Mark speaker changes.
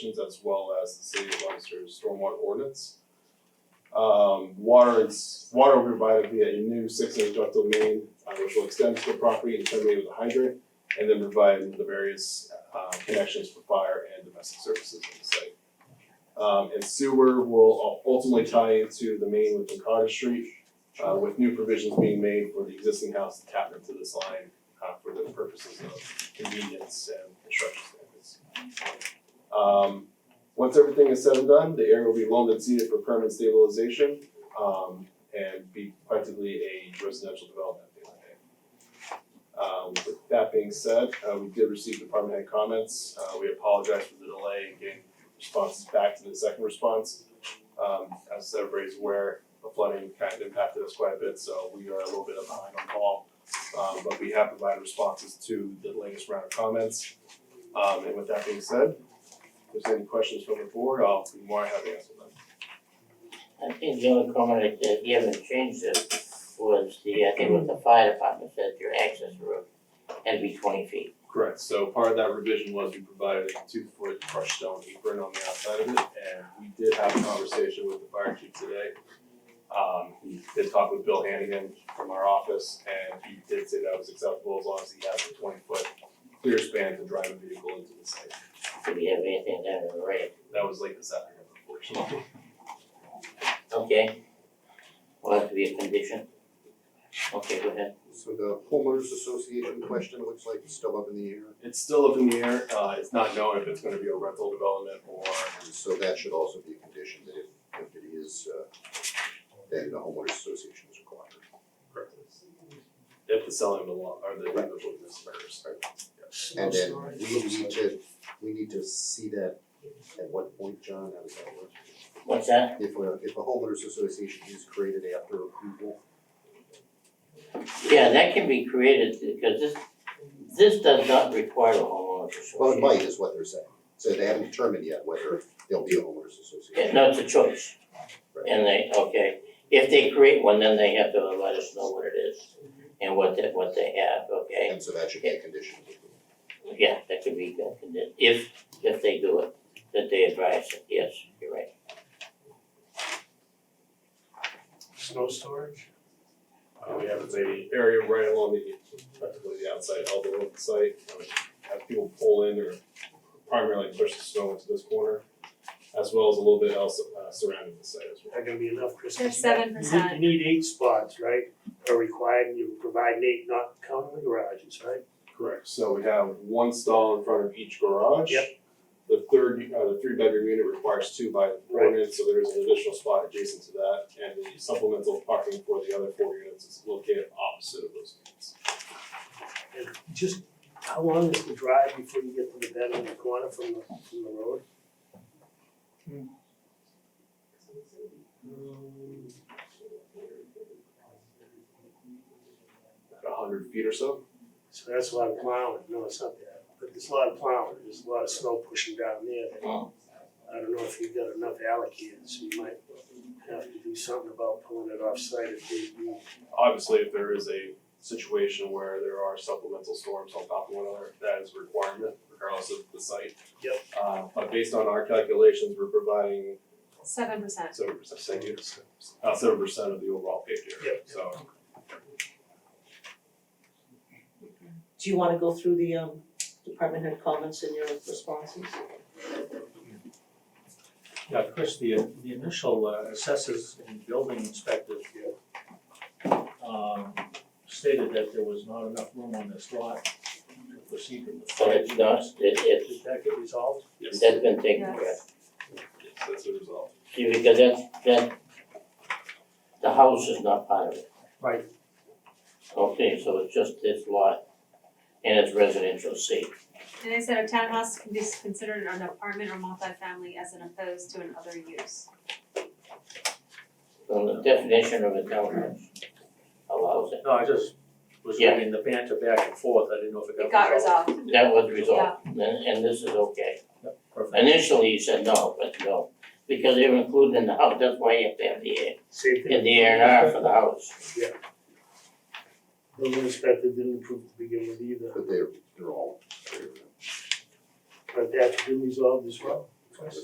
Speaker 1: as well as the city of Leominster's stormwater ordinance. Um, water is, water will be provided via a new six inch ductile main, uh, which will extend to the property and terminate with a hydrant, and then provide the various, uh, connections for fire and domestic services on the site. Um, and sewer will ultimately tie into the main within Cottage Street, uh, with new provisions being made for the existing house to tap into this line, uh, for the purposes of convenience and construction standards. Um, once everything is said and done, the area will be loaned and seeded for permanent stabilization, um, and be effectively a residential development at the end of the day. Um, with that being said, uh, we did receive department head comments, uh, we apologize for the delay in getting responses back to the second response. Um, as everybody's aware, the flooding kind of impacted us quite a bit, so we are a little bit behind on call. Um, but we have provided responses to the latest round of comments. Um, and with that being said, if there's any questions from the board, I'll be more than happy to answer them.
Speaker 2: I think the only comment that- that you haven't changed it was the, I think what the fire department said, your access road had to be twenty feet.
Speaker 1: Correct, so part of that revision was we provided a two foot crushed stone apron on the outside of it, and we did have a conversation with the fire chief today. Um, he did talk with Bill Hannigan from our office, and he did say that was acceptable as long as he has a twenty foot clear span to drive a vehicle into the site.
Speaker 2: If you have anything down in red,
Speaker 1: That was late this afternoon, unfortunately.
Speaker 2: okay? Will have to be a condition? Okay, go ahead.
Speaker 3: So the homeowners association question looks like it's still up in the air,
Speaker 1: It's still up in the air, uh, it's not known if it's gonna be a rental development or,
Speaker 3: and so that should also be a condition that if, if it is, uh, then the homeowners association is required.
Speaker 1: if the selling of the lot, or the individual business occurs.
Speaker 3: And then we need to, we need to see that at what point, John, that was that work.
Speaker 2: What's that?
Speaker 3: If a, if a homeowners association is created after approval,
Speaker 2: Yeah, that can be created because this, this does not require a homeowners
Speaker 3: well, it
Speaker 2: association.
Speaker 3: might is what they're saying. So they haven't determined yet whether there'll be a homeowners
Speaker 2: Yeah,
Speaker 3: association.
Speaker 2: No, it's a choice. And they, okay, if they create one, then they have to let us know what it is and what they, what they have, okay?
Speaker 3: And so that should be a condition.
Speaker 2: Yeah, that could be, that could, be- if, if they do it, that they advise it, yes, you're right.
Speaker 4: Snow storage?
Speaker 1: Uh, we have a area right along the, practically the outside elbow of the site, I mean, have people pull in or primarily push the snow into this corner, as well as a little bit else uh, surrounding the site as well.
Speaker 4: Not gonna be enough, Chris.
Speaker 5: There's seven
Speaker 4: You need,
Speaker 5: percent.
Speaker 4: you need eight spots, right, are required, and you provide eight, not counting the garages, right?
Speaker 1: Correct, so we have one stall in front of each garage.
Speaker 4: Yep.
Speaker 1: The third, uh, the three bedroom unit requires two by
Speaker 4: Right.
Speaker 1: ordinance, so there's an additional spot adjacent to that, and the supplemental parking for the other four units is located opposite of those units.
Speaker 4: And just, how long is the drive before you get to the bed on the corner from the, from the road?
Speaker 1: About a hundred feet or so.
Speaker 4: So that's a lot of plowing, no, it's not that, but there's a lot of plowing, there's a lot of snow pushing down there. that- I don't know if you've got enough allocated, so you might have to do something about pulling it offsite if they need.
Speaker 1: Obviously, if there is a situation where there are supplemental storms on top of one another, that is a requirement regardless of the site.
Speaker 4: Yep.
Speaker 1: Uh, but based on our calculations, we're providing
Speaker 5: Seven percent.
Speaker 1: seven percent, thank you, about seven percent of the overall paved area,
Speaker 4: Yep.
Speaker 1: so.
Speaker 6: Do you wanna go through the um department head comments and your responses?
Speaker 7: Yeah, Chris, the the initial uh, assessors and building inspectors here um stated that there was not enough room on this lot to proceed with the
Speaker 2: But it's
Speaker 7: fire.
Speaker 2: not, it,
Speaker 7: Did that get resolved?
Speaker 1: Yes,
Speaker 2: it's,
Speaker 1: yes,
Speaker 2: that's been taken care of.
Speaker 1: that's the result.
Speaker 2: See, because that, that, the house is not part of it.
Speaker 7: Right.
Speaker 2: Okay, so it's just this lot and it's residential C.
Speaker 5: And they said a townhouse can be considered an apartment or multifamily as an opposed to an other use.
Speaker 2: So the definition of a townhouse allows it.
Speaker 7: No, I just was
Speaker 2: Yeah.
Speaker 7: reading the banter back and forth, I didn't know if it got resolved.
Speaker 5: It
Speaker 2: That
Speaker 5: got resolved.
Speaker 2: was resolved, and, and this is okay.
Speaker 7: Perfect.
Speaker 2: Initially, you said no, but no, because they were included in the house, that's why you have to have the A,
Speaker 4: Same thing.
Speaker 2: in the A and R for the house.
Speaker 4: Building inspector didn't approve to begin with either,
Speaker 3: But they're, they're all,
Speaker 4: but that did resolve as well.